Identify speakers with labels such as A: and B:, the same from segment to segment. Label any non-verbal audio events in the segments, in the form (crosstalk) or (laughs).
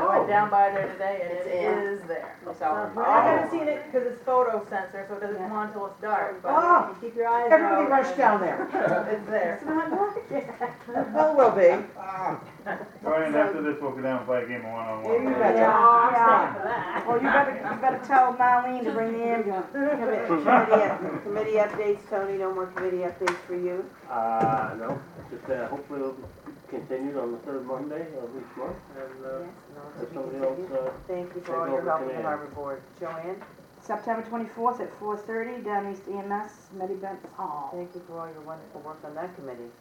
A: down by there today and
B: Oh. It's
A: it
B: in.
A: is there.
B: It's all in.
A: I haven't seen it because it's photo sensor, so it doesn't come on until it's dark, but
C: Ah,
A: you keep your eyes out.
C: Everybody rushed
A: and
C: down there.
D: Oh. (laughs)
A: It's there.
B: It's
A: (laughs)
B: not working.
C: Well, will be.
E: Right, and after this, we'll go down and play a game of one-on-one.
C: You
B: Yeah,
C: betcha.
B: yeah.
A: Stop for that.
B: Well, Oh, you better, you better tell Marlene to bring in commi- committee, up- committee updates, Tony, no more committee updates for you.
D: Uh, no, just, uh, hopefully it'll be continued on the third Monday of each month, and,
B: Yes,
D: uh,
B: no,
D: if
B: we
D: somebody
B: continue.
D: else, uh,
B: Thank you
D: take
B: for all your
D: over
B: help with the
D: command.
B: harbor board. Joanne,
F: September twenty-fourth at four thirty, down East E EMS, Medibent Hall.
B: thank you for all your wonderful work on that committee.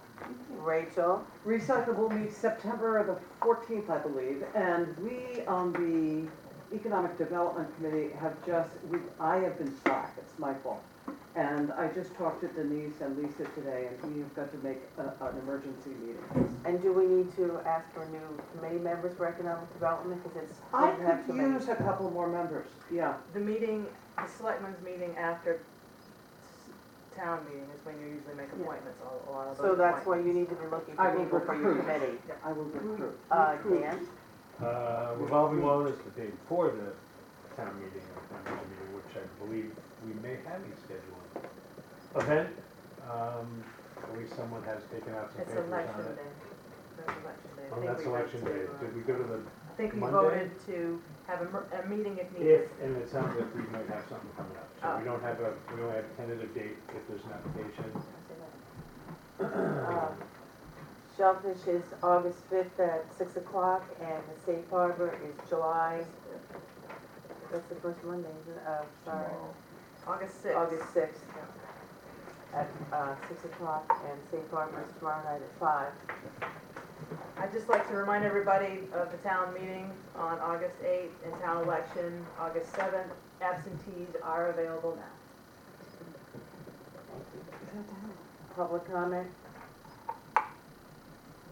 B: Rachel,
C: Recyclable meets September the fourteenth, I believe, and we on the Economic Development Committee have just, we, I have been slack, it's my fault. And I just talked to Denise and Lisa today, and we have got to make a- an emergency meeting.
B: and do we need to ask for new committee members for economic development, because it's. we
C: I
B: have too
C: could
B: many.
C: use a couple more members, yeah.
A: The meeting, the selectmen's meeting after s- town meeting is when you usually make appointments, a a lot of those
B: So that's why
A: appointments.
B: you need to be looking for
C: I will
B: people for your
C: recruit.
B: committee.
C: I will recruit.
B: Uh, Dan,
G: Uh, revolving loan is the day before the town meeting, or town meeting meeting, which I believe we may have a scheduled event. Um, at least someone has taken out some
A: It's
G: papers
A: election
G: on it.
A: day. That's election day. I
G: Oh,
A: think
G: that's
A: we voted
G: election day.
A: to, uh,
G: Did we go to the,
A: I think we
G: Monday?
A: voted to have a, mer- a meeting if needed.
G: if, and it sounds like we might have something coming up. So
A: Oh.
G: we don't have a, we don't have a tentative date if there's an application.
B: uh, Shellfish is August fifth at six o'clock, and the Safe Harbor is July, that's the first Monday, isn't it? Uh, sorry,
A: August sixth.
B: August sixth at, uh, six o'clock, and Safe Harbor is tomorrow night at five.
A: I'd just like to remind everybody of the town meeting on August 8th and town election August 7th. Absentees are available now.
B: Public comment?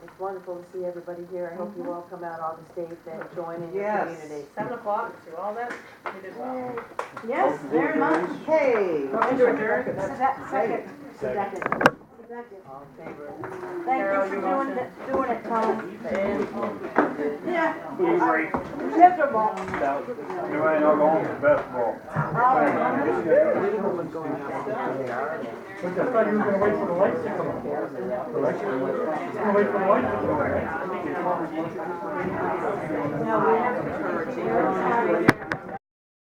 B: It's wonderful to see everybody here, I hope
F: Mm-hmm.
B: you all come out August eighth and join in your
C: Yes.
B: community.
A: 7 o'clock, do all that, we did well.
F: Yes, very much.
C: Hey.
A: Motion to adjourn.
F: So that second,
G: Second.
F: second.
B: All in favor?
F: Thank
A: Carol,
F: you for
A: you
F: doing,
A: motion.
F: it- doing it, Tom. Yeah.
E: Who's right?
F: Miserable.
E: Joanne, I'll go home to basketball.
F: No, we have to.